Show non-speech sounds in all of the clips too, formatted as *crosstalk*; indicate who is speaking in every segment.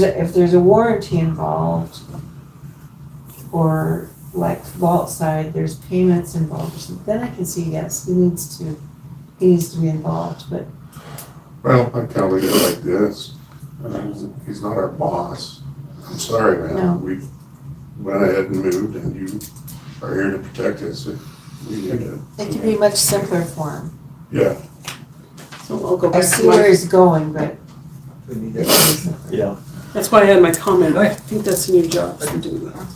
Speaker 1: there's a- if there's a warranty involved, or like vault side, there's payments involved, or something, then I can see, yes, he needs to, he needs to be involved, but
Speaker 2: Well, I tell the guy like this, um, he's not our boss. I'm sorry,
Speaker 1: No.
Speaker 2: man, we went ahead and moved and you are here to protect us. We need to,
Speaker 1: it could be much simpler for him.
Speaker 2: yeah,
Speaker 3: So Oh, I'll go
Speaker 1: I
Speaker 3: back
Speaker 1: see
Speaker 3: to my-
Speaker 1: where he's going, but
Speaker 4: We need
Speaker 1: it could be
Speaker 4: to
Speaker 1: simpler.
Speaker 5: Yeah.
Speaker 3: that's why I had my comment. I
Speaker 4: Right.
Speaker 3: think that's in your job to do that.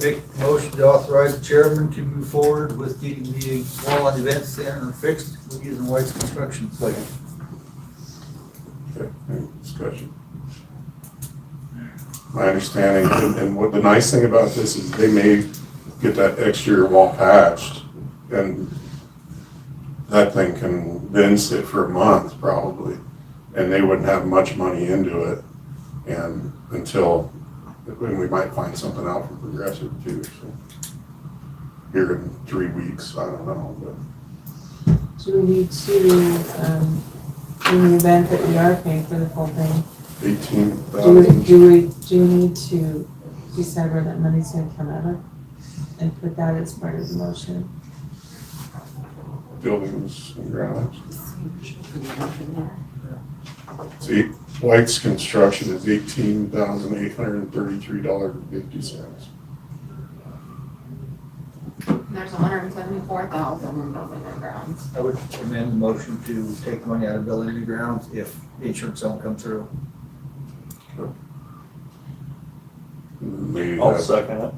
Speaker 4: make a motion to authorize the chairman to move forward with getting the wall on the event center fixed using White's construction plan.
Speaker 2: okay, any discussion. My understanding, and- and what the nice thing about this is they may get that exterior wall patched and that thing can then sit for a month probably, and they wouldn't have much money into it. And until, and we might find something out from Progressive too, so. Here in three weeks, I don't know, but
Speaker 1: Do we need to, um, in the event that we are paying for the full thing,
Speaker 2: eighteen
Speaker 1: do we,
Speaker 2: thousand.
Speaker 1: do we, do we need to decide where that money's gonna come out of? And put that as part of the motion?
Speaker 2: buildings and grounds. See, White's construction is eighteen thousand eight hundred and thirty-three dollars and fifty cents.
Speaker 6: There's hundred and seventy-four thousand in building and grounds.
Speaker 4: I would amend the motion to take money out of building and grounds if the insurance don't come through.
Speaker 2: And then we
Speaker 5: I'll
Speaker 2: have,
Speaker 5: second it.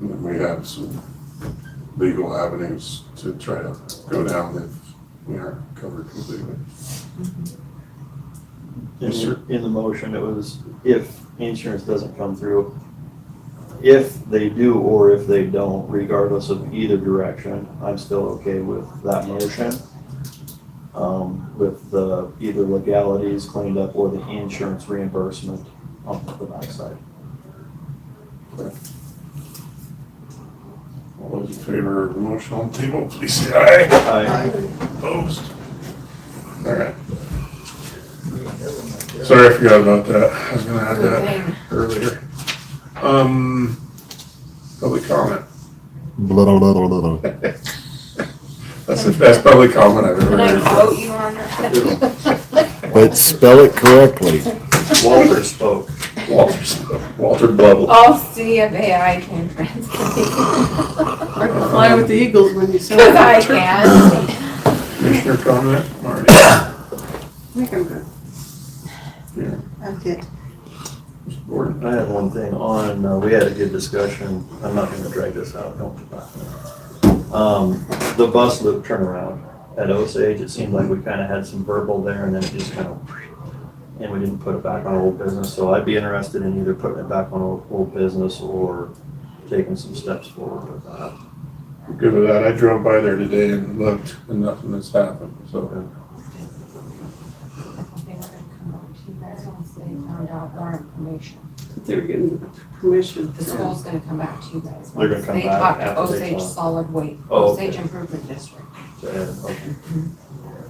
Speaker 2: and then we have some legal avenues to try to go down if we aren't covered completely. Yes, sir.
Speaker 5: In, in the motion, it was if insurance doesn't come through. If they do or if they don't, regardless of either direction, I'm still okay with that motion. Um, with the either legalities cleaned up or the insurance reimbursement on the backside.
Speaker 2: All those in favor of the motion on the table, please say aye.
Speaker 5: I,
Speaker 2: Opposed? All right,
Speaker 4: So
Speaker 2: sorry I forgot about that. I was gonna add that.
Speaker 6: Thing.
Speaker 2: earlier. Um, public comment.
Speaker 7: blah, blah, blah, blah, blah.
Speaker 2: That's the best public comment I've
Speaker 6: Can
Speaker 2: ever
Speaker 6: I
Speaker 2: heard.
Speaker 6: quote you on that?
Speaker 7: But spell it correctly.
Speaker 5: Walter spoke.
Speaker 2: Walter, Walter Bubble.
Speaker 6: I'll see if AI can translate.
Speaker 3: I can fly with the Eagles when you say
Speaker 6: Cause *laughs* I
Speaker 3: that.
Speaker 6: can.
Speaker 2: Commissioner comment, Marty.
Speaker 3: think I'm good.
Speaker 2: Yeah,
Speaker 1: I'm good.
Speaker 2: Mr. Gordon.
Speaker 5: I had one thing on, uh, we had a good discussion, I'm not gonna drag this out, don't. Um, the bus loop turnaround at Osage, it seemed like we kinda had some verbal there and then it just kinda, and we didn't put it back on old business, so I'd be interested in either putting it back on old, old business or taking some steps forward with that.
Speaker 2: I'm Good with that. I drove by there today and looked and nothing has happened, so.
Speaker 6: They were gonna come up to you guys once they found out more information.
Speaker 3: They were getting permission.
Speaker 6: The school's gonna come back to you guys.
Speaker 5: They're gonna
Speaker 6: once
Speaker 5: come back
Speaker 6: talk to
Speaker 5: after they
Speaker 6: Osage
Speaker 5: talk.
Speaker 6: Solid Waste,
Speaker 5: Oh, okay.
Speaker 6: Osage Improvement District.
Speaker 5: So, yeah, okay.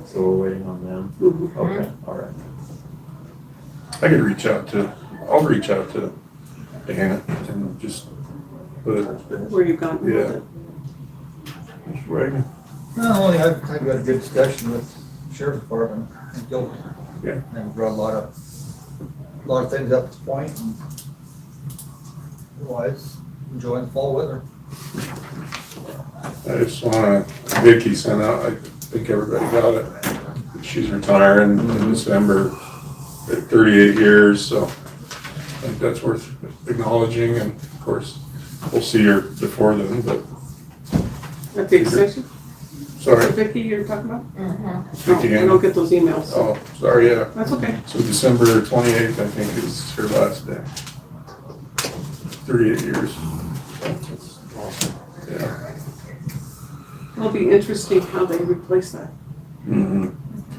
Speaker 5: So we're waiting on them,
Speaker 3: Mhm.
Speaker 5: okay, all right.
Speaker 2: I could reach out to, I'll reach out to Dana and just put it,
Speaker 5: That's good.
Speaker 3: Where you've gotten with it.
Speaker 2: Mr. Wagner.
Speaker 4: Not only, I've, I've got a good discussion with sheriff's department, and Gilbert.
Speaker 2: Yeah.
Speaker 4: And we brought a lot of, a lot of things up to point, and otherwise, enjoying the fall weather.
Speaker 2: I just wanna, Vicky sent out, I think everybody got it. She's retiring in December at thirty-eight years, so I think that's worth acknowledging and of course, we'll see her before then, but
Speaker 3: At the extension,
Speaker 2: sorry,
Speaker 3: Vicky, you're talking about?
Speaker 6: Mhm.
Speaker 3: No,
Speaker 2: Vicki
Speaker 3: I
Speaker 2: Ann.
Speaker 3: don't get those emails.
Speaker 2: Oh, sorry, yeah.
Speaker 3: That's okay.
Speaker 2: So December twenty-eighth, I think, is her last day. Thirty-eight years,
Speaker 5: That's awesome.
Speaker 2: yeah.
Speaker 3: It'll be interesting how they replace that.
Speaker 2: Mhm.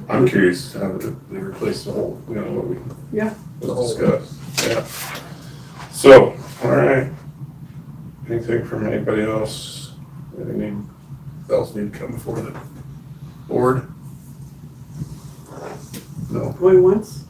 Speaker 2: I'm curious how they they replace the whole, you know, what we
Speaker 3: Yeah.
Speaker 2: was discussed, yeah. So, all right. Anything from anybody else? Anything else need to come before the board? No,
Speaker 3: Going once,